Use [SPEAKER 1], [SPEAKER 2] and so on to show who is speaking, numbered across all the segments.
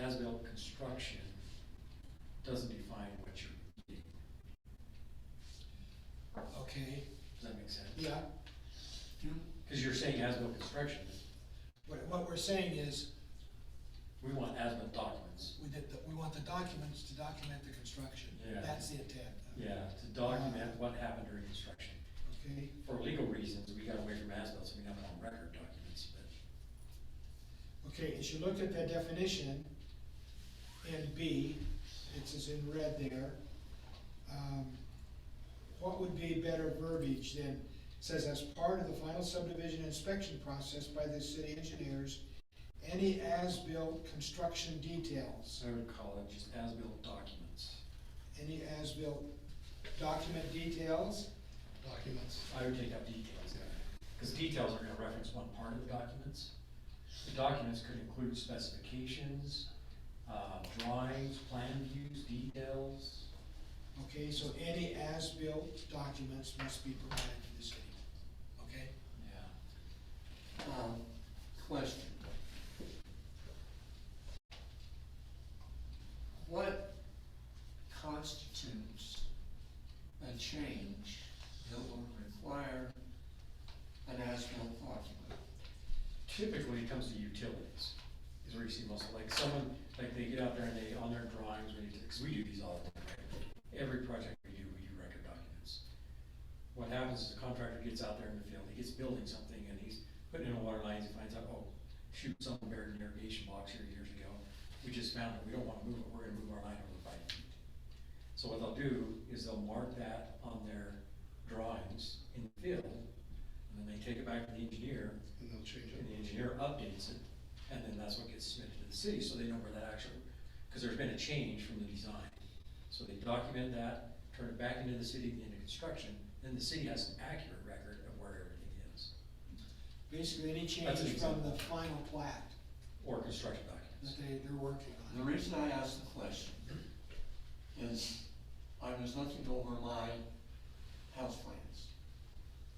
[SPEAKER 1] metal construction doesn't define what you're needing.
[SPEAKER 2] Okay,
[SPEAKER 1] Does that make sense?
[SPEAKER 2] yeah.
[SPEAKER 1] Because you're saying as-built construction,
[SPEAKER 2] What, what we're saying is,
[SPEAKER 1] we want as-built documents.
[SPEAKER 2] we did, the- we want the documents to document the construction.
[SPEAKER 1] Yeah.
[SPEAKER 2] That's the intent,
[SPEAKER 1] Yeah, to document what happened during construction.
[SPEAKER 2] okay?
[SPEAKER 1] For legal reasons, we got away from as-built, so we have on record documents, but
[SPEAKER 2] Okay, as you looked at that definition, in B, it's as in red there, um, what would be better verbiage than, says as part of the final subdivision inspection process by the city engineers, any as-built construction details,
[SPEAKER 1] so I would call it just as-built documents.
[SPEAKER 2] any as-built document details,
[SPEAKER 3] documents.
[SPEAKER 1] I would take out details, because details are gonna reference one part of the documents. The documents could include specifications, uh, drawings, plan views, details.
[SPEAKER 2] okay, so any as-built documents must be provided to the city, okay?
[SPEAKER 1] Yeah.
[SPEAKER 4] Um, Question. What constitutes a change that will require an as-built document?
[SPEAKER 1] typically it comes to utilities, is where you see most, like someone, like they get out there and they, on their drawings, when you, because we do these all the time, right? Every project we do, we do record documents. What happens is the contractor gets out there in the field, he gets building something and he's putting in a water line, he finds out, oh, shoot, something buried in the irrigation box here years ago, we just found it, we don't wanna move it, we're gonna move our line over five feet. So what they'll do is they'll mark that on their drawings in the field, and then they take it back to the engineer,
[SPEAKER 3] And they'll change it.
[SPEAKER 1] and the engineer updates it, and then that's what gets submitted to the city, so they know where that actually, because there's been a change from the design. So they document that, turn it back into the city at the end of construction, then the city has an accurate record of where everything is,
[SPEAKER 2] Basically, any change
[SPEAKER 1] That's an
[SPEAKER 2] from
[SPEAKER 1] example.
[SPEAKER 2] the final plat
[SPEAKER 1] or construction
[SPEAKER 2] that
[SPEAKER 1] documents.
[SPEAKER 2] they, they're working
[SPEAKER 4] The
[SPEAKER 2] on.
[SPEAKER 4] reason I ask the question is I was looking over my house plans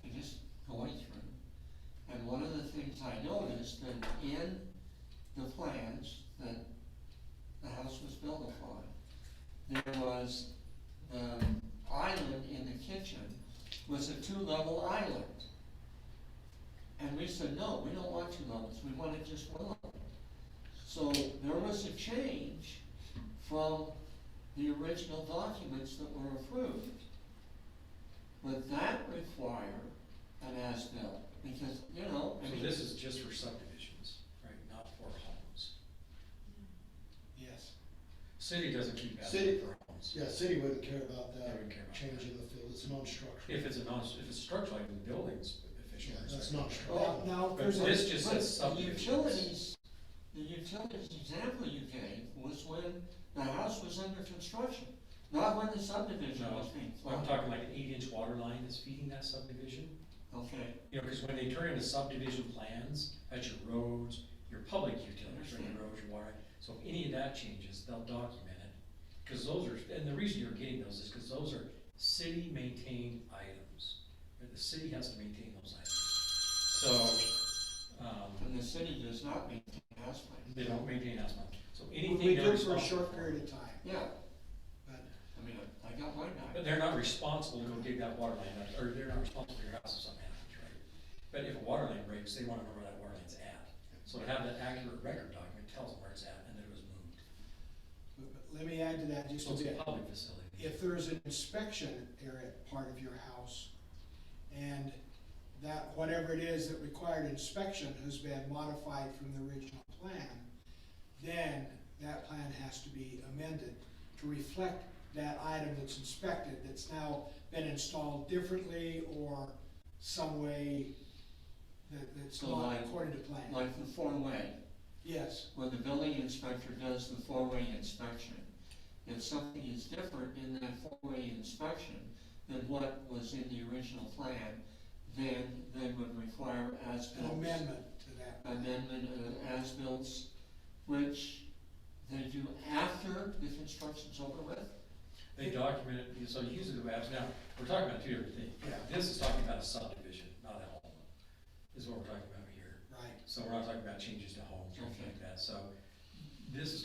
[SPEAKER 4] and just going through. And one of the things I noticed that in the plans that the house was built upon, there was the um, island in the kitchen was a two-level island. And we said, no, we don't want two levels, we wanted just one level. So there was a change from the original documents that were approved. But that required an as-built, because, you know, I
[SPEAKER 1] So
[SPEAKER 4] mean.
[SPEAKER 1] this is just for subdivisions, right, not for homes.
[SPEAKER 2] Yes.
[SPEAKER 1] City doesn't keep that
[SPEAKER 3] City-
[SPEAKER 1] for homes.
[SPEAKER 3] Yeah, city wouldn't care about
[SPEAKER 1] They
[SPEAKER 3] that,
[SPEAKER 1] wouldn't care about
[SPEAKER 3] change
[SPEAKER 1] that.
[SPEAKER 3] in the field, it's non-structural.
[SPEAKER 1] If it's a non, if it's structural, like the building's official.
[SPEAKER 3] Yeah, that's not true.
[SPEAKER 2] Now, now, if
[SPEAKER 1] But
[SPEAKER 2] there's
[SPEAKER 1] this
[SPEAKER 2] a,
[SPEAKER 1] just
[SPEAKER 4] But
[SPEAKER 1] says subdivisions.
[SPEAKER 4] The utilities, the utilities example you gave was when the house was under construction, not when the subdivision
[SPEAKER 1] No,
[SPEAKER 4] was being
[SPEAKER 1] I'm
[SPEAKER 4] planned.
[SPEAKER 1] talking like an eight-inch water line that's feeding that subdivision.
[SPEAKER 4] Okay,
[SPEAKER 1] You know, because when they turn into subdivision plans, that's your roads, your public utilities, right, your roads, your water. So if any of that changes, they'll document it, because those are, and the reason you're getting those is because those are city-maintained items. And The city has to maintain those items. So, um,
[SPEAKER 4] and the city does not maintain house plans.
[SPEAKER 1] they don't maintain as much. So
[SPEAKER 2] we
[SPEAKER 1] anything
[SPEAKER 2] we
[SPEAKER 1] they're
[SPEAKER 2] do for a
[SPEAKER 1] responsible
[SPEAKER 2] short
[SPEAKER 1] for-
[SPEAKER 2] period of time,
[SPEAKER 4] Yeah,
[SPEAKER 2] but,
[SPEAKER 4] I mean, I I got mine back.
[SPEAKER 1] But they're not responsible to go dig that water line up, or they're not responsible for your house if something happens, right? But if a water line breaks, they wanna know where that water line's at. So to have that accurate record document tells them where it's at and that it was moved.
[SPEAKER 2] but but let me add to that just
[SPEAKER 1] So
[SPEAKER 2] a
[SPEAKER 1] it's a
[SPEAKER 2] bit.
[SPEAKER 1] public facility.
[SPEAKER 2] If there is an inspection area, part of your house, and that, whatever it is that required inspection has been modified from the original plan, then that plan has to be amended to reflect that item that's inspected, that's now been installed differently or some way that, that's
[SPEAKER 4] So
[SPEAKER 2] not
[SPEAKER 4] like-
[SPEAKER 2] according to plan.
[SPEAKER 4] Like the four-way,
[SPEAKER 2] Yes,
[SPEAKER 4] when the building inspector does the four-way inspection, if something is different in that four-way inspection than what was in the original plan, then they would require
[SPEAKER 2] an
[SPEAKER 4] as-built.
[SPEAKER 2] amendment to that.
[SPEAKER 4] amendment of as-built, which they do after the construction's over with.
[SPEAKER 1] They document it, so usually the way apps, now, we're talking about two different things.
[SPEAKER 2] Yeah.
[SPEAKER 1] This is talking about a subdivision, not a home, is what we're talking about here.
[SPEAKER 2] Right.
[SPEAKER 1] So we're not talking about changes to homes or anything like that, so this is